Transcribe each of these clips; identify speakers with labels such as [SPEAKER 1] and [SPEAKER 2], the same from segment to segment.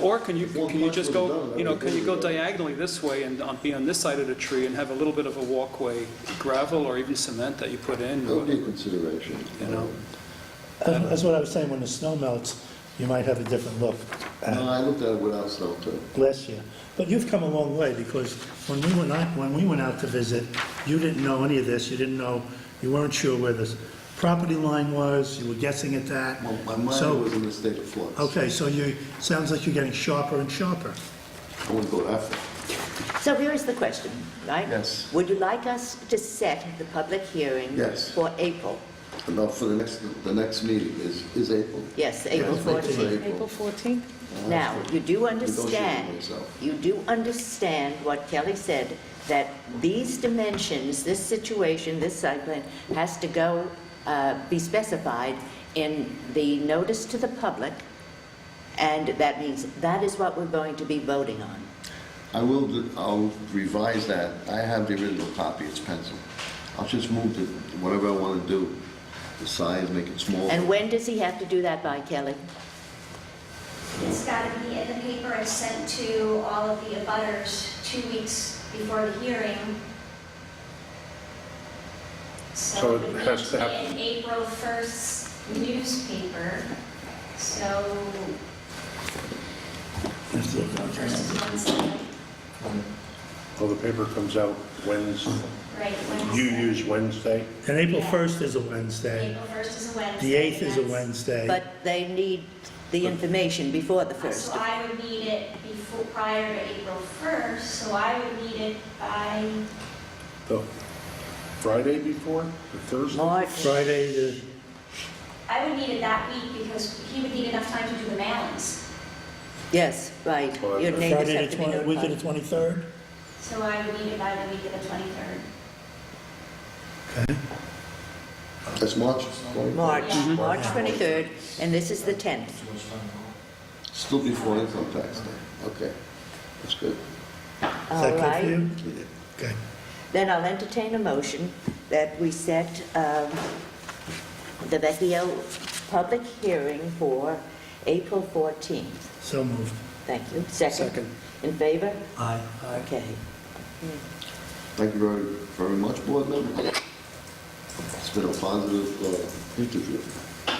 [SPEAKER 1] Or can you,
[SPEAKER 2] One
[SPEAKER 1] can you
[SPEAKER 2] punch
[SPEAKER 1] just
[SPEAKER 2] would've
[SPEAKER 1] go,
[SPEAKER 2] done it.
[SPEAKER 1] you know, can you go
[SPEAKER 2] Everything would've
[SPEAKER 1] diagonally this way and on- be on this side of the tree and have a little bit of a walkway, gravel or even cement that you put in?
[SPEAKER 2] That would be a consideration.
[SPEAKER 1] You know.
[SPEAKER 3] That- That's what I was saying, when the snow melts, you might have a different look
[SPEAKER 2] No,
[SPEAKER 3] at
[SPEAKER 2] I looked at it without snow too.
[SPEAKER 3] last year. But you've come a long way, because when we went out, when we went out to visit, you didn't know any of this, you didn't know, you weren't sure where the property line was, you were guessing at that.
[SPEAKER 2] Well, My mind
[SPEAKER 3] So-
[SPEAKER 2] was in a state of flux.
[SPEAKER 3] Okay, so you, sounds like you're getting sharper and sharper.
[SPEAKER 2] I wouldn't go that far.
[SPEAKER 4] So here is the question, right?
[SPEAKER 2] Yes.
[SPEAKER 4] Would you like us to set the public hearing?
[SPEAKER 2] Yes.
[SPEAKER 4] For April?
[SPEAKER 2] About for the next, the next meeting is, is April.
[SPEAKER 4] Yes, April
[SPEAKER 2] Yes, April.
[SPEAKER 4] 14th.
[SPEAKER 2] April.
[SPEAKER 5] April 14th?
[SPEAKER 4] Now, you do
[SPEAKER 2] Negotiate
[SPEAKER 4] understand,
[SPEAKER 2] with myself.
[SPEAKER 4] you do understand what Kelly said, that these dimensions, this situation, this site plan, has to go, uh, be specified in the notice to the public, and that means that is what we're going to be voting on.
[SPEAKER 2] I will, do- I'll revise that. I have the original copy, it's pencil. I'll just move to whatever I want to do, the size, make it smaller.
[SPEAKER 4] And when does he have to do that by, Kelly?
[SPEAKER 6] It's got to be in the paper and sent to all of the abutters two weeks before the hearing.
[SPEAKER 7] So
[SPEAKER 6] So
[SPEAKER 7] it
[SPEAKER 6] it would
[SPEAKER 7] has to
[SPEAKER 6] be
[SPEAKER 7] happen.
[SPEAKER 6] in April 1st newspaper, so first Wednesday,
[SPEAKER 7] Well, the paper comes out Wednesday.
[SPEAKER 6] right,
[SPEAKER 7] You
[SPEAKER 6] Wednesday.
[SPEAKER 7] use Wednesday?
[SPEAKER 3] And April 1st is a Wednesday,
[SPEAKER 6] April 1st is a Wednesday.
[SPEAKER 3] the 8th is a
[SPEAKER 6] that's-
[SPEAKER 3] Wednesday.
[SPEAKER 4] But they need the information before the first.
[SPEAKER 6] So I would need it before, prior to April 1st, so I would need it by
[SPEAKER 7] The Friday before, the Thursday?
[SPEAKER 4] March,
[SPEAKER 3] Friday, the-
[SPEAKER 6] I would need it that week because he would need enough time to do the mailings.
[SPEAKER 4] yes, right. Your neighbors
[SPEAKER 3] Friday
[SPEAKER 4] have
[SPEAKER 3] the
[SPEAKER 4] to be
[SPEAKER 3] 20, week of the
[SPEAKER 4] notified.
[SPEAKER 3] 23rd?
[SPEAKER 6] So I would need it by the week of the 23rd.
[SPEAKER 2] That's March.
[SPEAKER 4] March,
[SPEAKER 6] Mhm.
[SPEAKER 4] March 23rd, and this is the 10th.
[SPEAKER 2] Still before income tax day. Okay, that's good.
[SPEAKER 3] Is
[SPEAKER 4] All
[SPEAKER 3] that good for
[SPEAKER 4] right,
[SPEAKER 3] you? Okay.
[SPEAKER 4] then I'll entertain a motion that we set um, the Vecchio public hearing for April 14th.
[SPEAKER 3] So moved.
[SPEAKER 4] Thank you. Second?
[SPEAKER 1] Second.
[SPEAKER 4] In favor?
[SPEAKER 3] Aye.
[SPEAKER 4] Okay.
[SPEAKER 2] Thank you very, very much, board members. It's been a positive uh, interview.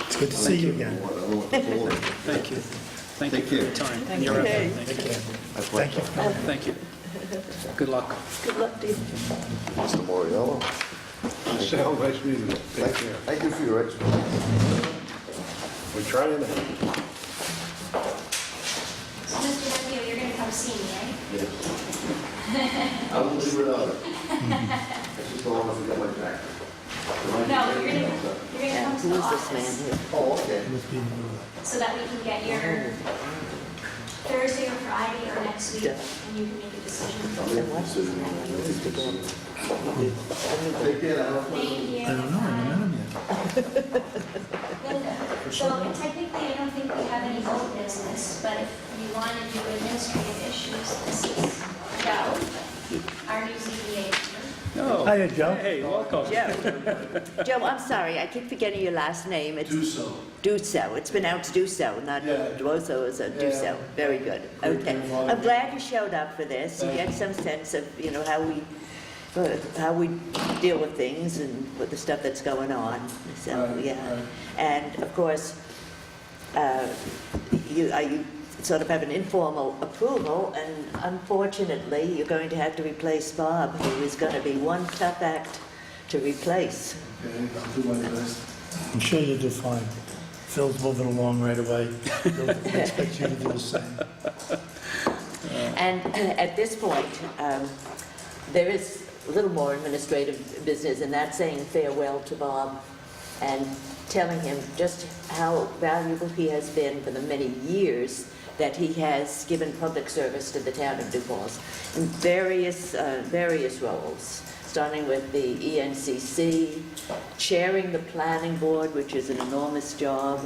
[SPEAKER 3] It's good to see you again.
[SPEAKER 2] I don't know what to call it.
[SPEAKER 1] Thank you. Thank you
[SPEAKER 2] Take
[SPEAKER 1] for your
[SPEAKER 2] care.
[SPEAKER 1] time. and your
[SPEAKER 4] you.
[SPEAKER 1] effort. Thank you.
[SPEAKER 3] Okay.
[SPEAKER 2] I
[SPEAKER 3] Thank you.
[SPEAKER 1] Thank you. Good luck.
[SPEAKER 4] Good luck to you.
[SPEAKER 2] Mr. Moriello.
[SPEAKER 7] Sal, nice meeting you. Take
[SPEAKER 2] Thank you.
[SPEAKER 7] care.
[SPEAKER 2] Thank you for your expertise.
[SPEAKER 7] We're trying to...
[SPEAKER 6] So Mr. Vecchio, you're going to come see me, right?
[SPEAKER 2] I won't leave without it. I just don't want to forget my jacket.
[SPEAKER 6] No, you're going to, you're going to come to
[SPEAKER 4] Who
[SPEAKER 6] the
[SPEAKER 4] is this
[SPEAKER 6] office
[SPEAKER 4] man here?
[SPEAKER 2] Oh, okay.
[SPEAKER 6] so that we can get your Thursday or Friday or next week and you can make a decision.
[SPEAKER 4] And what's his name? Who's the guy?
[SPEAKER 2] Take care, Alan.
[SPEAKER 6] Thank you.
[SPEAKER 3] I don't know, I haven't met him yet.
[SPEAKER 6] So technically, I don't think we have any old business, but if you want to do administrative issues, this is Joe, our new ZBA member.
[SPEAKER 1] No.
[SPEAKER 3] Hiya, Joe.
[SPEAKER 1] Hey, welcome.
[SPEAKER 4] Joe, Joe, I'm sorry, I keep forgetting your last name. It's
[SPEAKER 8] Duso.
[SPEAKER 4] Duso. It's pronounced Duso, not
[SPEAKER 8] Yeah.
[SPEAKER 4] Duoso, it's a Duso. Very good.
[SPEAKER 8] Great
[SPEAKER 4] Okay.
[SPEAKER 8] grandfather.
[SPEAKER 4] I'm glad you showed up for this. You
[SPEAKER 8] Thank
[SPEAKER 4] get some sense of, you know, how we, uh, how we deal with things and with the stuff that's going on. So,
[SPEAKER 8] Right,
[SPEAKER 4] yeah.
[SPEAKER 8] right.
[SPEAKER 4] And of course, uh, you, uh, you sort of have an informal approval, and unfortunately, you're going to have to replace Bob, who is going to be one tough act to replace.
[SPEAKER 8] Okay, I'll do my best.
[SPEAKER 3] I'm sure you'll do fine. Phil's moving along right away. He'll expect you to do the same.
[SPEAKER 4] And at this point, um, there is a little more administrative business, and that's saying farewell to Bob and telling him just how valuable he has been for the many years that he has given public service to the town of New Falls in various, uh, various roles, starting with the E ENCC, chairing the planning board, which is an enormous job,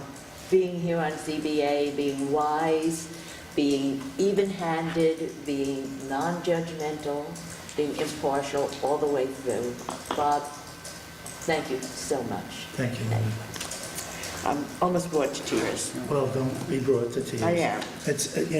[SPEAKER 4] being here on CBA, being wise, being even-handed, being non-judgmental, being impartial all the way through. Bob, thank you so much.
[SPEAKER 3] Thank you. I'm almost brought to tears.
[SPEAKER 4] Well, don't be brought to tears.
[SPEAKER 3] I am.
[SPEAKER 4] It's, uh, you know.